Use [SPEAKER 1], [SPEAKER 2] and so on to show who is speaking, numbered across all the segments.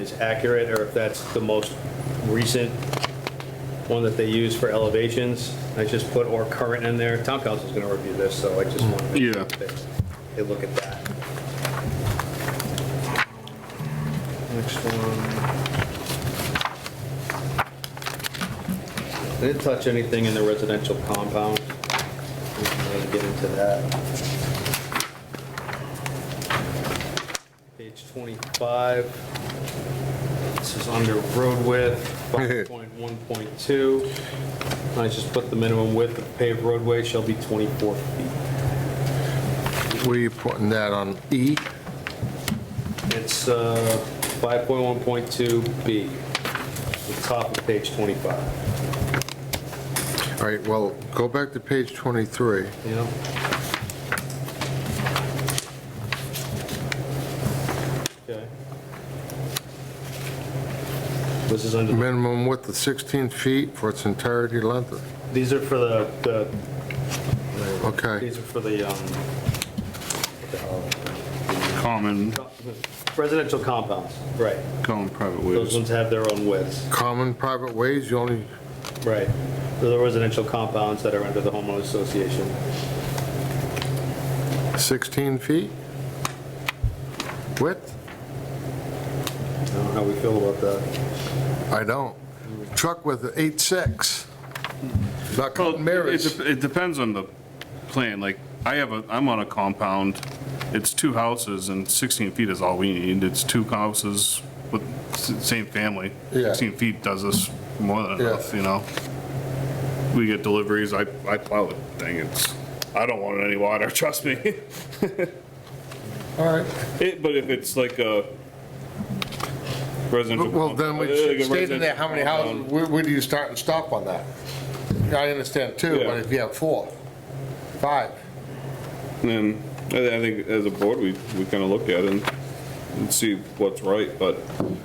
[SPEAKER 1] is accurate, or if that's the most recent one that they use for elevations. I just put or current in there. Town council's gonna review this, so I just want to make
[SPEAKER 2] Yeah.
[SPEAKER 1] sure that they- they look at that. Next one. They Didn't touch anything in the residential compound. We can really Get into that. Page 25. This is under road width, 5.1.2. I just put the minimum width of paved roadway shall be 24 feet.
[SPEAKER 3] Were you putting that on E?
[SPEAKER 1] It's uh, 5.1.2B, the top of page 25.
[SPEAKER 3] All right, well, go back to page 23.
[SPEAKER 1] You know, Okay. This is under the
[SPEAKER 3] Minimum width of 16 feet for its entirety length.
[SPEAKER 1] These are for the, the,
[SPEAKER 3] Okay,
[SPEAKER 1] these are for the, um, what the
[SPEAKER 2] common,
[SPEAKER 1] hell? residential compounds. Right.
[SPEAKER 2] common private
[SPEAKER 1] Those
[SPEAKER 2] ways.
[SPEAKER 1] ones have their own widths.
[SPEAKER 3] common private ways, you only,
[SPEAKER 1] Right. They're the residential compounds that are under the homeowners association.
[SPEAKER 3] 16 feet? Width?
[SPEAKER 1] I don't know how we feel about that.
[SPEAKER 3] I don't. Truck with an 8.6. Not counting
[SPEAKER 2] Well, it-
[SPEAKER 3] mirrors.
[SPEAKER 2] it, it depends on the plan, like, I have a, I'm on a compound, it's two houses and 16 feet is all we need, it's two houses with s- same family.
[SPEAKER 3] Yeah.
[SPEAKER 2] 16 feet does us more than
[SPEAKER 3] Yeah.
[SPEAKER 2] enough, you know? We get deliveries, I, I plow the thing, it's, I don't want any water, trust me.
[SPEAKER 3] All right.
[SPEAKER 2] It, but if it's like a residential.
[SPEAKER 3] Well, then we
[SPEAKER 2] like a
[SPEAKER 3] should state in there how many
[SPEAKER 2] residential
[SPEAKER 3] houses, where, where do you start and stop on that? I understand two,
[SPEAKER 2] Yeah.
[SPEAKER 3] but if you have four, five,
[SPEAKER 2] And I I think as a board, we, we kind of look at it and- and see what's right, but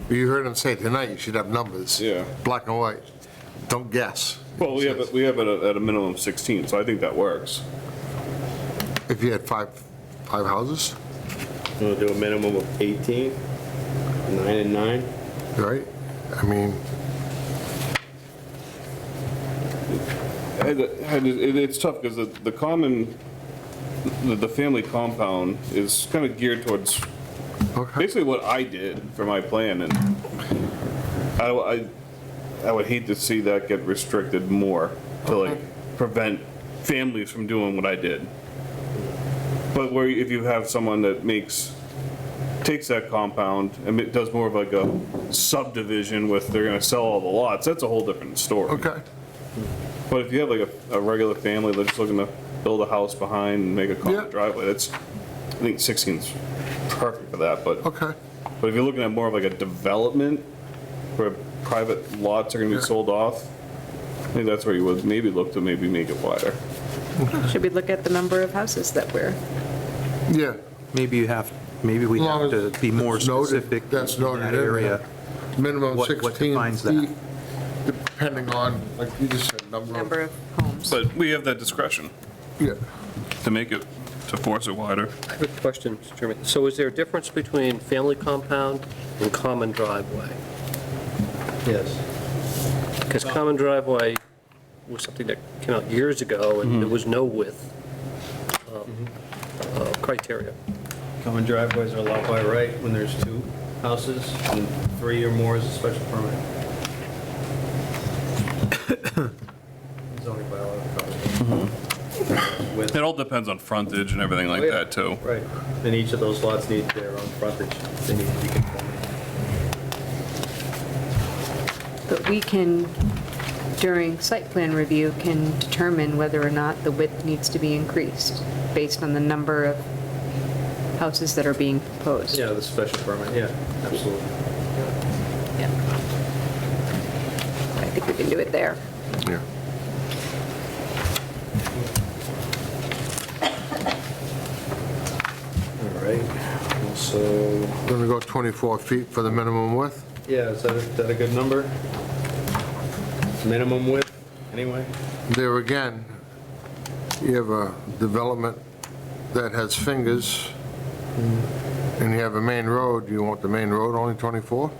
[SPEAKER 3] you heard him say tonight, you should have numbers.
[SPEAKER 2] Yeah.
[SPEAKER 3] Black and white. Don't guess.
[SPEAKER 2] Well, we have, it- we have it at at a minimum of 16, so I think that works.
[SPEAKER 3] If you had five, five houses,
[SPEAKER 1] We'll do a minimum of 18, nine and nine.
[SPEAKER 3] right? I mean,
[SPEAKER 2] I- I- it- It's tough because the the common, the- the family compound is kind of geared towards
[SPEAKER 3] okay.
[SPEAKER 2] basically what I did for my plan, and I, I, I would hate to see that get restricted more to like prevent families from doing what I did. But where if you have someone that makes, takes that compound and it does more of like a subdivision with they're gonna sell all the lots, that's a whole different story.
[SPEAKER 3] Okay.
[SPEAKER 2] But if you have like a, a regular family that's just looking to build a house behind and make a
[SPEAKER 3] Yeah.
[SPEAKER 2] common driveway, that's, I think 16's perfect for that, but.
[SPEAKER 3] Okay.
[SPEAKER 2] But if you're looking at more of like a development where private lots are gonna be sold off, I think that's where you would maybe look to maybe make it wider.
[SPEAKER 4] Should we look at the number of houses that we're,
[SPEAKER 3] Yeah.
[SPEAKER 5] Maybe you have, maybe we
[SPEAKER 3] Long
[SPEAKER 5] have to
[SPEAKER 3] as
[SPEAKER 5] be more
[SPEAKER 3] it's noted-
[SPEAKER 5] specific.
[SPEAKER 3] That's
[SPEAKER 5] in
[SPEAKER 3] noted
[SPEAKER 5] that
[SPEAKER 3] in
[SPEAKER 5] area.
[SPEAKER 3] there. Minimum
[SPEAKER 5] What- what
[SPEAKER 3] 16
[SPEAKER 5] defines that?
[SPEAKER 3] feet, depending on, like you just said, number
[SPEAKER 4] number
[SPEAKER 3] of,
[SPEAKER 4] of homes?
[SPEAKER 2] But we have that discretion
[SPEAKER 3] yeah.
[SPEAKER 2] to make it, to force it wider.
[SPEAKER 6] Quick question, Mr. Chairman. So is there a difference between family compound and common driveway?
[SPEAKER 1] Yes.
[SPEAKER 6] Because common driveway was something that came out years ago, and there was no width um, uh, criteria.
[SPEAKER 1] Common driveways are allowed by right when there's two houses, and three or more is a special permit. Zoning bylaw covers it. With-
[SPEAKER 2] It all depends on frontage and everything like
[SPEAKER 1] Oh, yeah.
[SPEAKER 2] that too.
[SPEAKER 1] Right, and each of those lots needs their own frontage, they need to be conforming.
[SPEAKER 7] But we can, during site plan review, can determine whether or not the width needs to be increased based on the number of houses that are being proposed.
[SPEAKER 1] Yeah, the special permit, yeah, absolutely.
[SPEAKER 7] Yeah. I think we can do it there.
[SPEAKER 3] Yeah.
[SPEAKER 1] All right, so,
[SPEAKER 3] Going to go 24 feet for the minimum width?
[SPEAKER 1] yeah, is that, is that a good number? Minimum width, anyway?
[SPEAKER 3] There again, you have a development that has fingers, and you have a main road, you want the main road only 24?